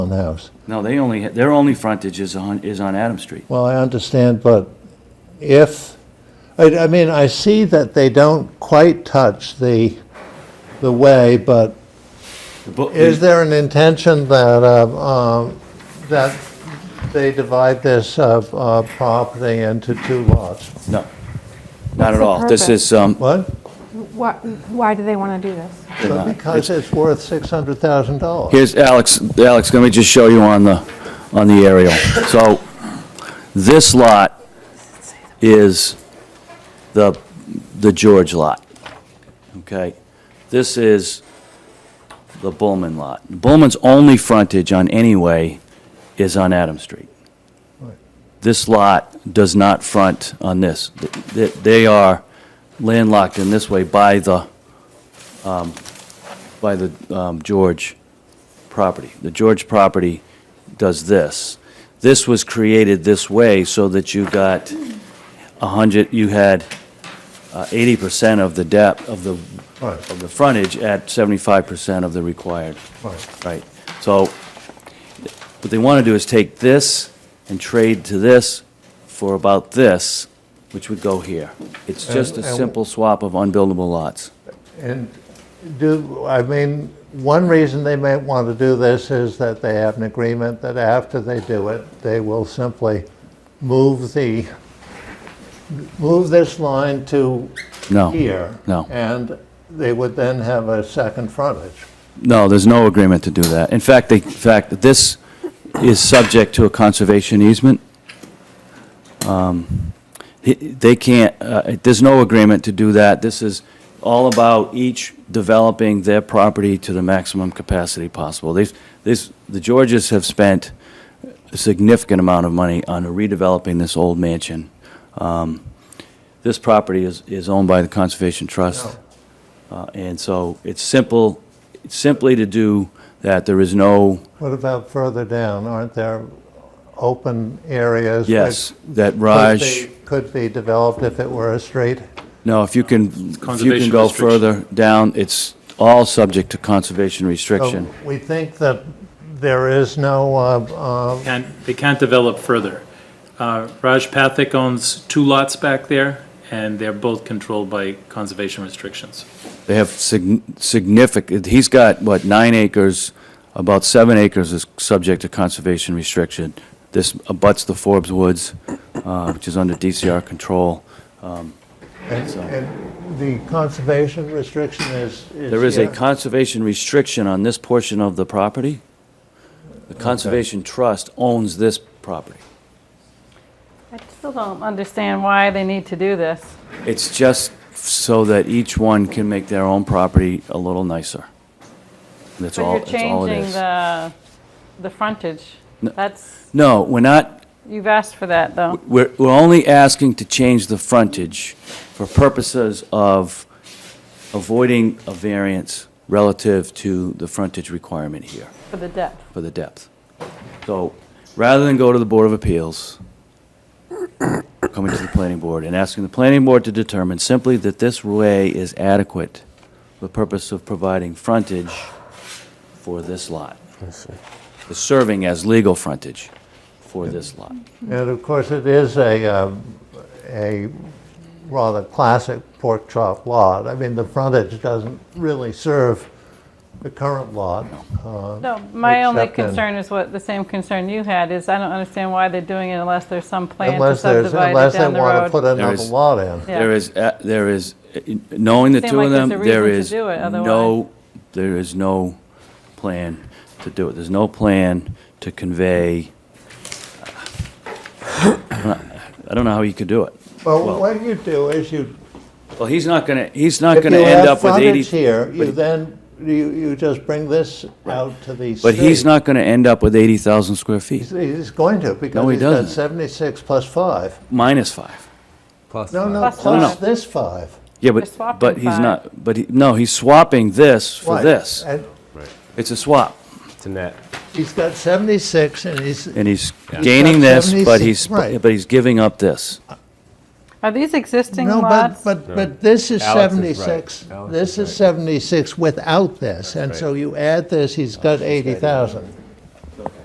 on the house. No, they only, their only frontage is on, is on Adam Street. Well, I understand, but if, I, I mean, I see that they don't quite touch the, the way, but The bo- is there an intention that, uh, um, that they divide this, uh, uh, property into two lots? No, not What's at the all. This purpose? is, um, What? Why, why do they want to do this? But Because it's worth $600,000. uh, here's Alex, Alex, let me just show you on the, on the aerial. So this lot is the, the George lot, okay? This is the Bullman lot. Bullman's only frontage on any way is on Adam Street. this lot does not front on this. Th- th- They are landlocked in this way by the, um, by the um, George property. The George property does this. This was created this way so that you got a 100, you had uh, 80% of the depth, of the, Right. of the frontage at 75% of the required. Right. Right. So what they want to do is take this and trade to this for about this, which would go here. It's just a And- and- simple swap of unbuildable lots. And do, I mean, one reason they may want to do this is that they have an agreement that after they do it, they will simply move the, move this line to No. here. No. And they would then have a second frontage. No, there's no agreement to do that. In fact, they, in fact, this is subject to a conservation easement. Um, he- They can't, uh, there's no agreement to do that. This is all about each developing their property to the maximum capacity possible. They've, this, the Georges have spent a significant amount of money on redeveloping this old mansion. Um, This property is, is owned by the Conservation Trust. Uh, And so it's simple, it's simply to do that, there is no, What about further down? Aren't there open areas? which yes, that could Raj, be- Could be developed if it were a street? no, if you can, if you can Conservation go restriction. further down, it's all subject to conservation restriction. Oh. So We think that there is no, uh, uh, Can't, they can't develop further. Uh, Raj Pathak owns two lots back there, and they're both controlled by conservation restrictions. They have significant, he's got, what, nine acres, about seven acres is subject to conservation restriction. This abuts the Forbes Woods, uh, which is under DCR control. And and the conservation restriction is... There is a here? conservation restriction on this portion of the property. The Conservation Trust owns this property. I still don't understand why they need to do this. It's just so that each one can make their own property a little nicer. That's all, that's all But it you're changing is. the, the frontage. That's, No, we're not, you've asked for that, though. we're, we're only asking to change the frontage for purposes of avoiding a variance relative to the frontage requirement here. For the depth. for the depth. So, rather than go to the Board of Appeals, coming to the planning board and asking the planning board to determine simply that this way is adequate for the purpose of providing frontage for this lot. It's Serving as legal frontage for this lot. And of course, it is a, um, a rather classic pork chop lot. I mean, the frontage doesn't really serve the current lot. Uh, No, my only Except in- concern is what, the same concern you had, is I don't understand why they're doing it unless there's some plan to Unless there's, subdivide unless it they down the want to put road. another is- lot in. Yeah. There is, a- there is, uh, knowing the Seem two like of there's them, a there reason to is do it, otherwise- no, there is no plan to do it. There's no plan to convey, I don't know how you could do it. Well, what you do is you, Well, he's not gonna, he's not if you gonna end have up with frontage 80, here, you then, you, you just bring this out to the street. but he's not gonna end up with 80,000 square feet, He's going to, because No, he he's got doesn't. 76 plus 5. minus five. No, no, Plus plus five. this 5. Yeah, They're but, swapping but he's five. not, but he, no, he's swapping this for Right. this. And It's a swap, It's a net. He's got 76, and he's, and he's gaining this, but 76, he's, right. but he's giving up this. Are these existing no, but, lots? but, but this is Alex is right. 76. Alex This is is 76 without this, and so you add this, he's got 80,000.